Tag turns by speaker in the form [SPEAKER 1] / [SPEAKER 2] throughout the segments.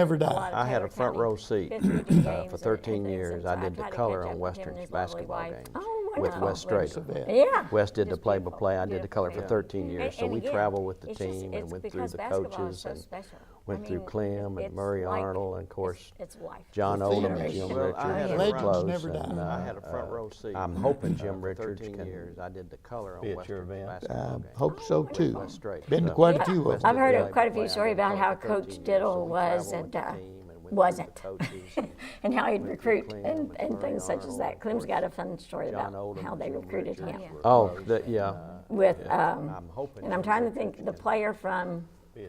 [SPEAKER 1] Never
[SPEAKER 2] a
[SPEAKER 1] died.
[SPEAKER 2] lot of
[SPEAKER 3] I had
[SPEAKER 2] Taylor
[SPEAKER 3] a front
[SPEAKER 2] County
[SPEAKER 3] row seat
[SPEAKER 2] Pittsburgh games
[SPEAKER 3] uh,
[SPEAKER 2] and
[SPEAKER 3] for 13
[SPEAKER 2] everything,
[SPEAKER 3] years.
[SPEAKER 2] so
[SPEAKER 3] I did
[SPEAKER 2] try
[SPEAKER 3] the
[SPEAKER 2] to catch
[SPEAKER 3] color
[SPEAKER 2] up
[SPEAKER 3] on
[SPEAKER 2] with him
[SPEAKER 3] Western's
[SPEAKER 2] and his lovely
[SPEAKER 3] basketball
[SPEAKER 2] wife.
[SPEAKER 3] games
[SPEAKER 2] Oh,
[SPEAKER 3] with
[SPEAKER 2] wonderful.
[SPEAKER 3] West Drayton.
[SPEAKER 1] Elizabeth.
[SPEAKER 2] Yeah.
[SPEAKER 3] Wes did the
[SPEAKER 2] just
[SPEAKER 3] play-by-play, I did the
[SPEAKER 2] beautiful
[SPEAKER 3] color for
[SPEAKER 2] people.
[SPEAKER 3] 13 years,
[SPEAKER 2] And-
[SPEAKER 3] so
[SPEAKER 2] and
[SPEAKER 3] we
[SPEAKER 2] again,
[SPEAKER 3] traveled with the
[SPEAKER 2] it's just-
[SPEAKER 3] team and
[SPEAKER 2] it's
[SPEAKER 3] went through
[SPEAKER 2] because
[SPEAKER 3] the
[SPEAKER 2] basketball is
[SPEAKER 3] coaches
[SPEAKER 2] so
[SPEAKER 3] and
[SPEAKER 2] special. I
[SPEAKER 3] went through
[SPEAKER 2] mean,
[SPEAKER 3] Clem
[SPEAKER 2] it's
[SPEAKER 3] and Murray
[SPEAKER 2] like-
[SPEAKER 3] Arnold and of course,
[SPEAKER 2] It's life.
[SPEAKER 3] John
[SPEAKER 1] The
[SPEAKER 3] Odom
[SPEAKER 1] theater
[SPEAKER 3] and
[SPEAKER 1] is
[SPEAKER 3] Jim
[SPEAKER 1] so
[SPEAKER 3] Richards.
[SPEAKER 4] Well, I had
[SPEAKER 3] and
[SPEAKER 4] a front-
[SPEAKER 3] Close
[SPEAKER 1] Legends never
[SPEAKER 3] and,
[SPEAKER 1] die.
[SPEAKER 3] uh,
[SPEAKER 1] I
[SPEAKER 4] had a front
[SPEAKER 3] uh,
[SPEAKER 4] row seat
[SPEAKER 3] I'm hoping Jim
[SPEAKER 4] for
[SPEAKER 3] Richards
[SPEAKER 4] 13
[SPEAKER 3] can
[SPEAKER 4] years.
[SPEAKER 3] I did the color on
[SPEAKER 4] be at your
[SPEAKER 3] Western's
[SPEAKER 4] event.
[SPEAKER 1] I
[SPEAKER 3] basketball games.
[SPEAKER 1] Um, hope so too.
[SPEAKER 3] West Drayton.
[SPEAKER 1] Been to
[SPEAKER 3] So-
[SPEAKER 1] quite a few of
[SPEAKER 3] West
[SPEAKER 1] them.
[SPEAKER 2] I've heard of
[SPEAKER 3] Drayton
[SPEAKER 2] quite a few
[SPEAKER 3] played
[SPEAKER 2] stories
[SPEAKER 3] under
[SPEAKER 2] about how
[SPEAKER 3] Carter for
[SPEAKER 2] Coach
[SPEAKER 3] 13 years, so
[SPEAKER 2] Diddle
[SPEAKER 3] we
[SPEAKER 2] was
[SPEAKER 3] traveled with
[SPEAKER 2] and
[SPEAKER 3] the
[SPEAKER 2] uh,
[SPEAKER 3] team and went through the
[SPEAKER 2] wasn't.
[SPEAKER 3] coaches and
[SPEAKER 2] And how he'd
[SPEAKER 3] went through
[SPEAKER 2] recruit
[SPEAKER 3] Clem
[SPEAKER 2] and,
[SPEAKER 3] and
[SPEAKER 2] and things such as
[SPEAKER 3] Arnold,
[SPEAKER 2] that.
[SPEAKER 3] of
[SPEAKER 2] Clem's got a
[SPEAKER 3] course,
[SPEAKER 2] fun story
[SPEAKER 3] John
[SPEAKER 2] about
[SPEAKER 3] Odom
[SPEAKER 2] how
[SPEAKER 3] and
[SPEAKER 2] they
[SPEAKER 3] Jim
[SPEAKER 2] recruited him
[SPEAKER 3] Richards were Oh, close the- and,
[SPEAKER 4] yeah.
[SPEAKER 3] uh,
[SPEAKER 2] with,
[SPEAKER 3] I'm
[SPEAKER 2] um,
[SPEAKER 3] hoping
[SPEAKER 2] and I'm
[SPEAKER 3] Jim
[SPEAKER 2] trying to
[SPEAKER 3] Richards
[SPEAKER 2] think, the player from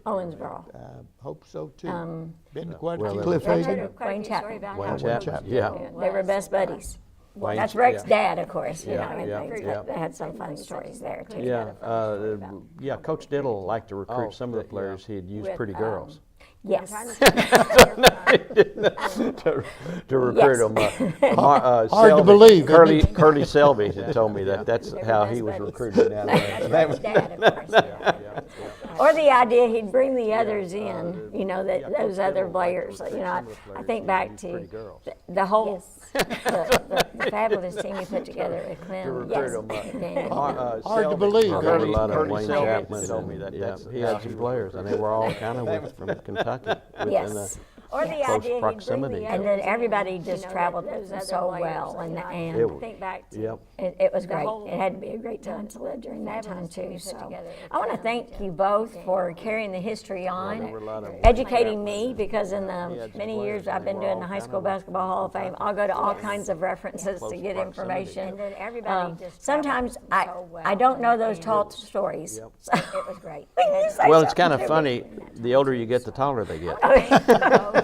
[SPEAKER 2] Owensboro.
[SPEAKER 1] I Um, hope so too. Been to quite a
[SPEAKER 3] Well,
[SPEAKER 1] few.
[SPEAKER 3] it-
[SPEAKER 1] Cliff
[SPEAKER 2] Um, I've heard
[SPEAKER 1] Hagan.
[SPEAKER 2] of quite a
[SPEAKER 5] Wayne
[SPEAKER 2] few stories
[SPEAKER 5] Chapman.
[SPEAKER 2] about
[SPEAKER 3] Wayne
[SPEAKER 2] how
[SPEAKER 3] Chapman,
[SPEAKER 2] Coach
[SPEAKER 3] yeah.
[SPEAKER 2] Diddle They were best buddies.
[SPEAKER 3] Wayne-
[SPEAKER 2] That's Rex's
[SPEAKER 3] yeah.
[SPEAKER 2] dad, of course, you know,
[SPEAKER 3] Yeah, yeah,
[SPEAKER 2] and they-
[SPEAKER 3] yeah.
[SPEAKER 2] they had some fun stories there too.
[SPEAKER 3] Yeah, uh, yeah, Coach Diddle liked to
[SPEAKER 4] Oh,
[SPEAKER 3] recruit some of the
[SPEAKER 4] yeah.
[SPEAKER 3] players, he'd use
[SPEAKER 2] With,
[SPEAKER 3] pretty
[SPEAKER 2] um,
[SPEAKER 3] girls.
[SPEAKER 2] Yes.
[SPEAKER 3] to to recruit him. uh, Amar- uh,
[SPEAKER 1] Hard to
[SPEAKER 3] Selby-
[SPEAKER 1] believe, isn't
[SPEAKER 3] Curly,
[SPEAKER 1] it?
[SPEAKER 3] Curly Selby had told me that that's
[SPEAKER 2] They're
[SPEAKER 3] how
[SPEAKER 2] best
[SPEAKER 3] he was
[SPEAKER 2] buddies.
[SPEAKER 3] recruited down there.
[SPEAKER 2] That's Rex's dad, of course. yeah. Or the idea he'd bring the others in, you know,
[SPEAKER 3] uh, yeah,
[SPEAKER 2] that,
[SPEAKER 3] Coach
[SPEAKER 2] those other
[SPEAKER 3] Diddle liked to
[SPEAKER 2] players, you
[SPEAKER 3] recruit
[SPEAKER 2] know, I-
[SPEAKER 3] some of the
[SPEAKER 2] I
[SPEAKER 3] players
[SPEAKER 2] think
[SPEAKER 3] who
[SPEAKER 2] back
[SPEAKER 3] used
[SPEAKER 2] to
[SPEAKER 3] pretty girls.
[SPEAKER 2] the- the whole, the the- the fabulous team he put together with Clem,
[SPEAKER 3] recruit
[SPEAKER 2] yes.
[SPEAKER 3] 'em, uh,
[SPEAKER 2] Daniel.
[SPEAKER 3] Amar-
[SPEAKER 1] Hard
[SPEAKER 3] uh,
[SPEAKER 1] to
[SPEAKER 3] Selby-
[SPEAKER 1] believe,
[SPEAKER 3] I
[SPEAKER 1] Curly-
[SPEAKER 3] remember a lot of
[SPEAKER 4] Curly
[SPEAKER 3] Wayne
[SPEAKER 4] Selby
[SPEAKER 3] Chapman
[SPEAKER 4] told me
[SPEAKER 3] and-
[SPEAKER 4] that
[SPEAKER 3] yeah,
[SPEAKER 4] that's
[SPEAKER 3] He
[SPEAKER 4] how
[SPEAKER 3] had
[SPEAKER 4] he
[SPEAKER 3] some
[SPEAKER 4] was
[SPEAKER 3] players, and they were all kind of from Kentucky. within
[SPEAKER 2] Yes.
[SPEAKER 3] the-
[SPEAKER 2] Or the
[SPEAKER 3] close proximity.
[SPEAKER 2] And then everybody just traveled so well and,
[SPEAKER 3] It
[SPEAKER 2] and
[SPEAKER 3] was-
[SPEAKER 5] Think back to
[SPEAKER 3] Yep.
[SPEAKER 2] it, it was great.
[SPEAKER 5] whole-
[SPEAKER 2] It had to be a great time to live during that time
[SPEAKER 5] fabulous team
[SPEAKER 2] too,
[SPEAKER 5] you put
[SPEAKER 2] so.
[SPEAKER 5] together
[SPEAKER 2] I want to
[SPEAKER 5] with
[SPEAKER 2] thank you both for carrying the history
[SPEAKER 3] there were a lot
[SPEAKER 2] on,
[SPEAKER 3] of them.
[SPEAKER 2] educating me, because in the
[SPEAKER 3] had some
[SPEAKER 2] many years
[SPEAKER 3] players and
[SPEAKER 2] I've
[SPEAKER 3] they
[SPEAKER 2] been
[SPEAKER 3] were
[SPEAKER 2] doing
[SPEAKER 3] all
[SPEAKER 2] the High
[SPEAKER 3] kind
[SPEAKER 2] School
[SPEAKER 3] of in
[SPEAKER 2] Basketball Hall of Fame, I'll go to all kinds of references to
[SPEAKER 3] Close
[SPEAKER 2] get
[SPEAKER 3] proximity.
[SPEAKER 2] information.
[SPEAKER 5] And then everybody
[SPEAKER 2] Um,
[SPEAKER 5] just
[SPEAKER 2] Sometimes
[SPEAKER 5] traveled
[SPEAKER 2] I,
[SPEAKER 5] so well
[SPEAKER 2] I don't know those
[SPEAKER 5] and-
[SPEAKER 2] tall stories.
[SPEAKER 3] Yep.
[SPEAKER 2] so-
[SPEAKER 5] It was great.
[SPEAKER 2] You say
[SPEAKER 3] Well, it's
[SPEAKER 2] something
[SPEAKER 3] kind of
[SPEAKER 2] to me.
[SPEAKER 3] funny, the older you get, the taller they get.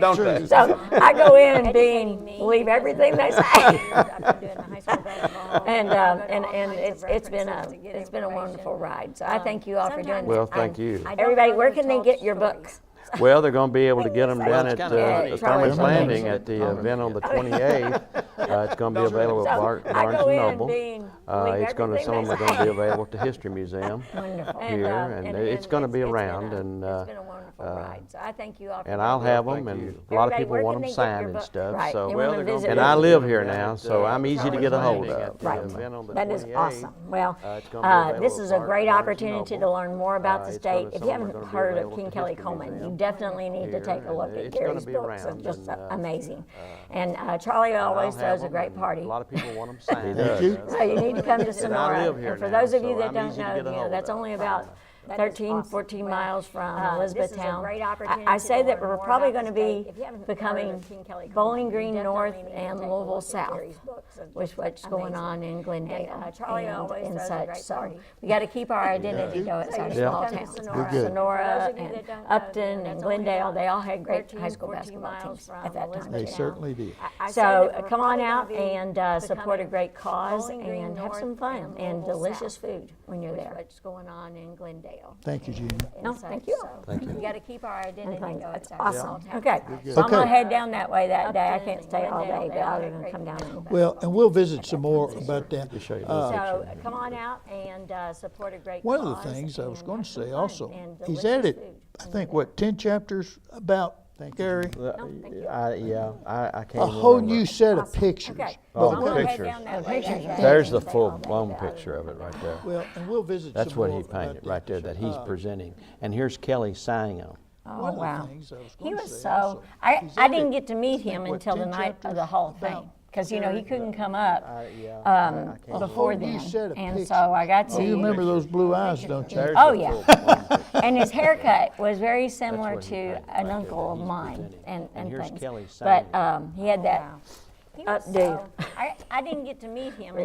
[SPEAKER 5] Don't
[SPEAKER 2] So I go in and
[SPEAKER 5] Educating
[SPEAKER 2] being,
[SPEAKER 5] me
[SPEAKER 2] believe
[SPEAKER 5] because
[SPEAKER 2] everything they say. And,
[SPEAKER 5] And,
[SPEAKER 2] um, and, and it's, it's been a, it's been a wonderful ride, so I thank you all for doing that.
[SPEAKER 5] sometimes Well,
[SPEAKER 3] thank
[SPEAKER 2] And
[SPEAKER 3] you. I
[SPEAKER 5] don't
[SPEAKER 2] Everybody,
[SPEAKER 5] know
[SPEAKER 2] where
[SPEAKER 5] the
[SPEAKER 2] can they
[SPEAKER 5] tall
[SPEAKER 2] get your books?
[SPEAKER 5] stories.
[SPEAKER 3] Well, they're going to be able to get them
[SPEAKER 2] Well,
[SPEAKER 3] down
[SPEAKER 2] it's
[SPEAKER 3] at
[SPEAKER 4] kinda
[SPEAKER 3] uh,
[SPEAKER 4] funny.
[SPEAKER 3] the
[SPEAKER 2] Probably
[SPEAKER 3] Thurman's
[SPEAKER 2] something.
[SPEAKER 3] Landing at the uh, event on the 28th. Uh, It's going to be available at
[SPEAKER 2] So
[SPEAKER 3] Bar-
[SPEAKER 2] I
[SPEAKER 3] Barnes
[SPEAKER 2] go
[SPEAKER 3] and
[SPEAKER 2] in and
[SPEAKER 3] Noble.
[SPEAKER 2] being-
[SPEAKER 3] Uh,
[SPEAKER 2] believe
[SPEAKER 3] It's going to,
[SPEAKER 2] everything
[SPEAKER 3] some
[SPEAKER 2] they
[SPEAKER 3] of them are going to
[SPEAKER 2] say.
[SPEAKER 3] be available at the History Museum
[SPEAKER 2] Wonderful.
[SPEAKER 3] here,
[SPEAKER 2] uh,
[SPEAKER 3] and it's going to be
[SPEAKER 2] it's- it's been
[SPEAKER 3] around,
[SPEAKER 2] a-
[SPEAKER 3] and,
[SPEAKER 2] It's
[SPEAKER 3] uh,
[SPEAKER 2] been a wonderful ride, so I thank you all for.
[SPEAKER 3] and I'll
[SPEAKER 2] doing it.
[SPEAKER 3] have them, and a lot of
[SPEAKER 2] Everybody,
[SPEAKER 3] people
[SPEAKER 2] where
[SPEAKER 3] want
[SPEAKER 2] can
[SPEAKER 3] them
[SPEAKER 2] they get your
[SPEAKER 3] signed and
[SPEAKER 2] book?
[SPEAKER 3] stuff,
[SPEAKER 2] Right, they
[SPEAKER 3] so.
[SPEAKER 2] want-
[SPEAKER 3] And I live here now, so I'm easy to get a hold of.
[SPEAKER 2] Right.
[SPEAKER 3] The event on the
[SPEAKER 2] That is
[SPEAKER 3] 28th,
[SPEAKER 2] awesome. Well,
[SPEAKER 3] uh, it's gonna be
[SPEAKER 2] uh, this is
[SPEAKER 3] available at
[SPEAKER 2] a
[SPEAKER 3] Bar-
[SPEAKER 2] great
[SPEAKER 3] Barnes and
[SPEAKER 2] opportunity to
[SPEAKER 3] Noble.
[SPEAKER 2] learn more
[SPEAKER 3] Uh,
[SPEAKER 2] about the
[SPEAKER 3] it's gonna-
[SPEAKER 2] state. If
[SPEAKER 3] some
[SPEAKER 2] you
[SPEAKER 3] of 'em are
[SPEAKER 2] haven't
[SPEAKER 3] gonna be
[SPEAKER 2] heard of
[SPEAKER 3] available
[SPEAKER 2] King
[SPEAKER 3] at the
[SPEAKER 2] Kelly
[SPEAKER 3] History
[SPEAKER 2] Coleman, you
[SPEAKER 3] Museum.
[SPEAKER 2] definitely need to
[SPEAKER 3] Here,
[SPEAKER 2] take a
[SPEAKER 3] and
[SPEAKER 2] look at
[SPEAKER 3] it's gonna
[SPEAKER 2] Gary's
[SPEAKER 3] be
[SPEAKER 2] books. They're
[SPEAKER 3] around,
[SPEAKER 2] just
[SPEAKER 3] and, uh,
[SPEAKER 2] amazing. And uh, Charlie always
[SPEAKER 3] I'll have
[SPEAKER 2] throws a
[SPEAKER 3] 'em,
[SPEAKER 2] great
[SPEAKER 3] and
[SPEAKER 2] party.
[SPEAKER 3] A lot of people want them signed.
[SPEAKER 1] does. Did you?
[SPEAKER 2] So you need to come to
[SPEAKER 3] And I
[SPEAKER 2] Sonora.
[SPEAKER 3] live here
[SPEAKER 2] And for
[SPEAKER 3] now,
[SPEAKER 2] those of you
[SPEAKER 3] so
[SPEAKER 2] that
[SPEAKER 3] I'm
[SPEAKER 2] don't
[SPEAKER 3] easy to
[SPEAKER 2] know,
[SPEAKER 3] get
[SPEAKER 2] you
[SPEAKER 3] a
[SPEAKER 2] know,
[SPEAKER 3] hold
[SPEAKER 2] that's
[SPEAKER 3] of.
[SPEAKER 2] only about
[SPEAKER 5] That is
[SPEAKER 2] 13,
[SPEAKER 5] awesome.
[SPEAKER 2] 14
[SPEAKER 5] Well,
[SPEAKER 2] miles from
[SPEAKER 5] uh, this is a
[SPEAKER 2] Elizabethtown.
[SPEAKER 5] great
[SPEAKER 2] I- I
[SPEAKER 5] opportunity
[SPEAKER 2] say
[SPEAKER 5] to
[SPEAKER 2] that
[SPEAKER 5] learn
[SPEAKER 2] we're
[SPEAKER 5] more
[SPEAKER 2] probably
[SPEAKER 5] about
[SPEAKER 2] going
[SPEAKER 5] the
[SPEAKER 2] to
[SPEAKER 5] state.
[SPEAKER 2] be
[SPEAKER 5] If you haven't heard of
[SPEAKER 2] becoming
[SPEAKER 5] King Kelly Coleman,
[SPEAKER 2] Bowling
[SPEAKER 5] you
[SPEAKER 2] Green
[SPEAKER 5] definitely
[SPEAKER 2] North
[SPEAKER 5] need
[SPEAKER 2] and
[SPEAKER 5] to take a look
[SPEAKER 2] Louisville
[SPEAKER 5] at
[SPEAKER 2] South,
[SPEAKER 5] Gary's books. It's
[SPEAKER 2] which
[SPEAKER 5] just
[SPEAKER 2] what's going
[SPEAKER 5] amazing.
[SPEAKER 2] on in Glendale
[SPEAKER 5] uh, Charlie
[SPEAKER 2] and
[SPEAKER 5] always
[SPEAKER 2] and
[SPEAKER 5] throws a
[SPEAKER 2] such.
[SPEAKER 5] great
[SPEAKER 2] So
[SPEAKER 5] party.
[SPEAKER 2] we got to keep our identity though it's
[SPEAKER 5] So
[SPEAKER 2] our
[SPEAKER 5] you
[SPEAKER 2] small
[SPEAKER 5] should come to
[SPEAKER 2] towns.
[SPEAKER 5] Sonora. We're good.
[SPEAKER 2] Sonora
[SPEAKER 5] For those of you
[SPEAKER 2] and
[SPEAKER 5] that don't know,
[SPEAKER 2] Upton and
[SPEAKER 5] that's only
[SPEAKER 2] Glendale,
[SPEAKER 5] about
[SPEAKER 2] they all had great
[SPEAKER 5] 13,
[SPEAKER 2] high school
[SPEAKER 5] 14
[SPEAKER 2] basketball
[SPEAKER 5] miles
[SPEAKER 2] teams
[SPEAKER 5] from
[SPEAKER 2] at that time.
[SPEAKER 1] They
[SPEAKER 5] Elizabeth.
[SPEAKER 2] too.
[SPEAKER 1] certainly did.
[SPEAKER 2] So uh, come on out and uh, support a great cause and have some fun and delicious food when you're there.
[SPEAKER 5] What's going on in Glendale?
[SPEAKER 1] Thank you, Gene.
[SPEAKER 2] No,
[SPEAKER 5] and
[SPEAKER 2] thank
[SPEAKER 5] such,
[SPEAKER 2] you.
[SPEAKER 5] so We gotta keep our identity.
[SPEAKER 2] And things,
[SPEAKER 5] though,
[SPEAKER 2] that's
[SPEAKER 5] it's our small
[SPEAKER 2] awesome.
[SPEAKER 5] town.
[SPEAKER 2] Okay, so I'm
[SPEAKER 1] Okay.
[SPEAKER 2] gonna head down that way that day. I
[SPEAKER 5] Upton
[SPEAKER 2] can't
[SPEAKER 5] and
[SPEAKER 2] stay all
[SPEAKER 5] Glendale,
[SPEAKER 2] day, but
[SPEAKER 5] they all
[SPEAKER 2] I'm
[SPEAKER 5] had
[SPEAKER 2] gonna
[SPEAKER 5] great
[SPEAKER 2] come down. and-
[SPEAKER 1] Well, and we'll visit some more about that. Uh,
[SPEAKER 2] So uh, come on out and uh, support a great
[SPEAKER 1] One
[SPEAKER 2] cause.
[SPEAKER 1] of the things I was
[SPEAKER 2] and
[SPEAKER 1] going
[SPEAKER 2] have
[SPEAKER 1] to
[SPEAKER 2] some
[SPEAKER 1] say
[SPEAKER 2] fun
[SPEAKER 1] also,
[SPEAKER 2] and
[SPEAKER 1] he's
[SPEAKER 2] delicious
[SPEAKER 1] added,
[SPEAKER 2] food.
[SPEAKER 1] I think, what, 10 chapters about Gary?
[SPEAKER 3] I- Yeah, I I can't
[SPEAKER 1] A
[SPEAKER 3] even
[SPEAKER 1] whole
[SPEAKER 3] remember.
[SPEAKER 1] new set of pictures.
[SPEAKER 2] Okay.
[SPEAKER 3] Oh,
[SPEAKER 2] so I'm gonna head
[SPEAKER 3] pictures.
[SPEAKER 2] down that way that day.
[SPEAKER 3] There's the full, blown picture of it right there.
[SPEAKER 1] Well, and we'll visit
[SPEAKER 3] That's
[SPEAKER 1] some
[SPEAKER 3] what
[SPEAKER 1] more
[SPEAKER 3] he
[SPEAKER 1] about
[SPEAKER 3] painted, right
[SPEAKER 1] that.
[SPEAKER 3] there, that he's presenting. And here's Kelly signing them.
[SPEAKER 2] Oh,
[SPEAKER 1] One of the
[SPEAKER 2] wow.
[SPEAKER 1] things I was
[SPEAKER 2] He
[SPEAKER 1] going to
[SPEAKER 2] was
[SPEAKER 1] say
[SPEAKER 2] so,
[SPEAKER 1] also.
[SPEAKER 2] I,
[SPEAKER 1] he's
[SPEAKER 2] I didn't
[SPEAKER 1] added-
[SPEAKER 2] get to meet him
[SPEAKER 1] what,
[SPEAKER 2] until the
[SPEAKER 1] 10
[SPEAKER 2] night of
[SPEAKER 1] chapters
[SPEAKER 2] the Hall of
[SPEAKER 1] about-
[SPEAKER 2] Fame, because, you know, he couldn't come up
[SPEAKER 3] yeah, Oh,
[SPEAKER 2] um,
[SPEAKER 1] A whole
[SPEAKER 2] before
[SPEAKER 1] new
[SPEAKER 2] then.
[SPEAKER 1] set of
[SPEAKER 2] And
[SPEAKER 1] pictures.
[SPEAKER 2] so I got
[SPEAKER 1] You
[SPEAKER 2] to,
[SPEAKER 1] remember those blue eyes, don't you?
[SPEAKER 3] There's
[SPEAKER 2] Oh,
[SPEAKER 3] Oh, the
[SPEAKER 2] yeah.
[SPEAKER 3] full blown picture.
[SPEAKER 2] and his haircut was very similar
[SPEAKER 3] what he
[SPEAKER 2] to
[SPEAKER 3] painted right
[SPEAKER 2] an
[SPEAKER 3] there
[SPEAKER 2] uncle
[SPEAKER 3] that
[SPEAKER 2] of
[SPEAKER 3] he's
[SPEAKER 2] mine
[SPEAKER 3] presenting.
[SPEAKER 2] and,
[SPEAKER 3] And
[SPEAKER 2] and
[SPEAKER 3] here's
[SPEAKER 2] things.
[SPEAKER 3] Kelly
[SPEAKER 2] But
[SPEAKER 3] signing.
[SPEAKER 2] um, he had that
[SPEAKER 5] He was
[SPEAKER 2] updo.
[SPEAKER 5] so-
[SPEAKER 2] I, I didn't get to meet him